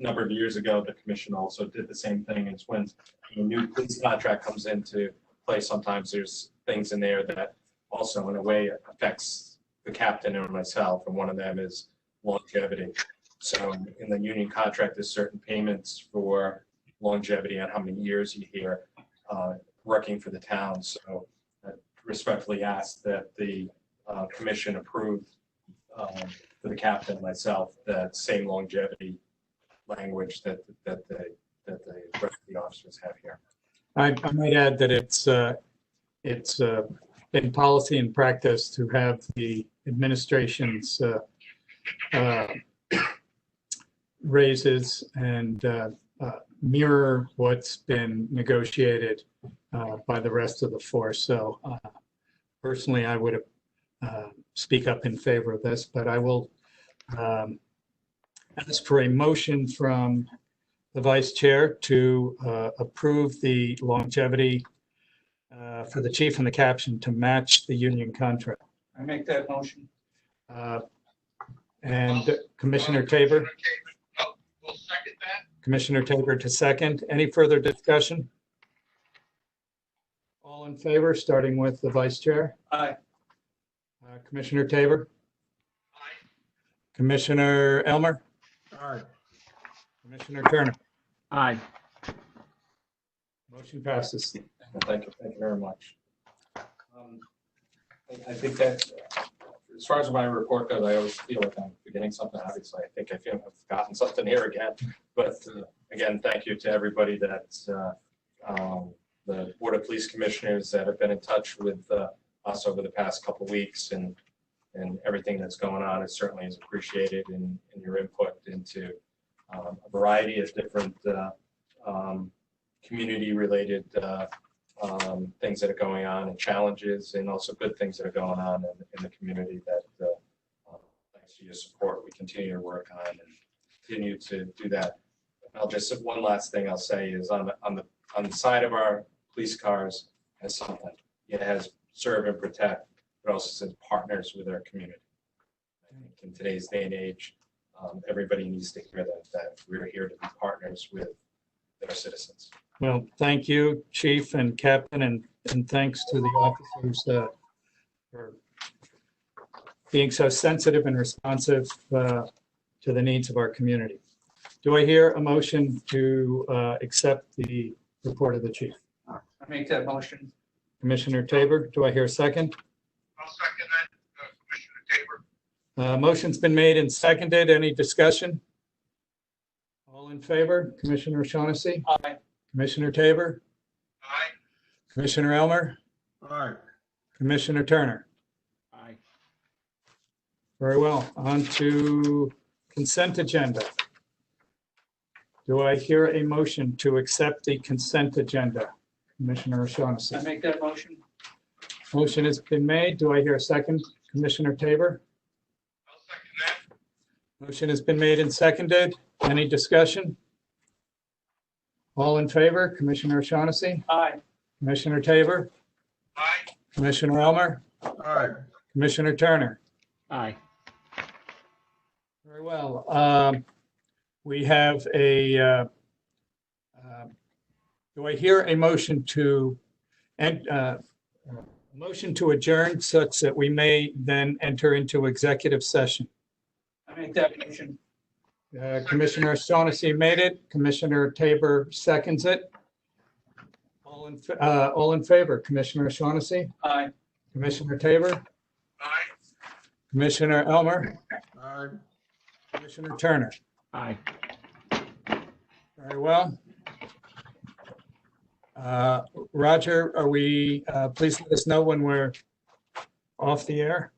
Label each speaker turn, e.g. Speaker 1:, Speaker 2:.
Speaker 1: number of years ago, the commission also did the same thing. It's when a new police contract comes into play, sometimes there's things in there that also in a way affects the captain or myself, and one of them is longevity. So in the union contract, there's certain payments for longevity and how many years you're here uh, working for the town. So I respectfully ask that the uh, commission approve um, for the captain, myself, that same longevity language that, that the, that the rest of the officers have here.
Speaker 2: I, I might add that it's, uh, it's, uh, in policy and practice to have the administration's, uh, uh, raises and, uh, uh, mirror what's been negotiated, uh, by the rest of the force. So, uh, personally, I would, uh, speak up in favor of this, but I will, um, ask for a motion from the vice chair to uh, approve the longevity uh, for the chief and the caption to match the union contract.
Speaker 3: I make that motion.
Speaker 2: Uh, And Commissioner Tabor,
Speaker 4: Oh, We'll second that.
Speaker 2: Commissioner Tabor to second. Any further discussion? All in favor, starting with the vice chair,
Speaker 3: Aye.
Speaker 2: Uh, Commissioner Tabor,
Speaker 4: Aye.
Speaker 2: Commissioner Elmer? Commissioner Turner?
Speaker 5: Aye.
Speaker 2: Motion passes.
Speaker 1: And Thank you, thank you very much. Um, I- I think that, uh, as far as my report goes, I always feel like I'm forgetting something. Obviously, I think I feel I've forgotten something here again. But uh, again, thank you to everybody that, uh, um, the Board of Police Commissioners that have been in touch with uh, us over the past couple weeks and, and everything that's going on. It certainly is appreciated in, in your input into um, a variety of different uh, um, community-related uh, um, things that are going on and challenges and also good things that are going on in, in the community that, uh, um, thanks to your support, we continue to work on and continue to do that. I'll just, one last thing I'll say is on the, on the, on the side of our police cars has something. It has serve and protect, but also says partners with our community. I think In today's day and age, um, everybody needs to hear that, that we're here to be partners with their citizens.
Speaker 2: Well, thank you, chief and captain, and, and thanks to the officers uh, for being so sensitive and responsive uh, to the needs of our community. Do I hear a motion to uh, accept the report of the chief?
Speaker 3: I make that motion.
Speaker 2: Commissioner Tabor, do I hear a second?
Speaker 4: I'll second that, uh, Commissioner Tabor.
Speaker 2: Uh, Motion's been made and seconded. Any discussion? All in favor? Commissioner Shaughnessy?
Speaker 3: Aye.
Speaker 2: Commissioner Tabor?
Speaker 4: Aye.
Speaker 2: Commissioner Elmer?
Speaker 5: Aye.
Speaker 2: Commissioner Turner?
Speaker 5: Aye.
Speaker 2: Very well, on to consent agenda. Do I hear a motion to accept the consent agenda? Commissioner O'Shaughnessy.
Speaker 3: I make that motion.
Speaker 2: Motion has been made. Do I hear a second? Commissioner Tabor?
Speaker 4: I'll second that.
Speaker 2: Motion has been made and seconded. Any discussion? All in favor? Commissioner O'Shaughnessy?
Speaker 3: Aye.
Speaker 2: Commissioner Tabor?
Speaker 4: Aye.
Speaker 2: Commissioner Elmer?
Speaker 5: Aye.
Speaker 2: Commissioner Turner?
Speaker 5: Aye.
Speaker 2: Very well. Um, We have a, uh, uh, do I hear a motion to, and, uh, a motion to adjourn such that we may then enter into executive session?
Speaker 3: I make that motion.
Speaker 2: Uh, Commissioner Shaughnessy made it. Commissioner Tabor seconds it. All in, fa- uh, all in favor? Commissioner Shaughnessy,
Speaker 3: Aye.
Speaker 2: Commissioner Tabor,
Speaker 4: Aye.
Speaker 2: Commissioner Elmer,
Speaker 5: Aye.
Speaker 2: Commissioner Turner.
Speaker 5: Aye.
Speaker 2: Very well. Uh, Roger, are we, uh, please let us know when we're off the air.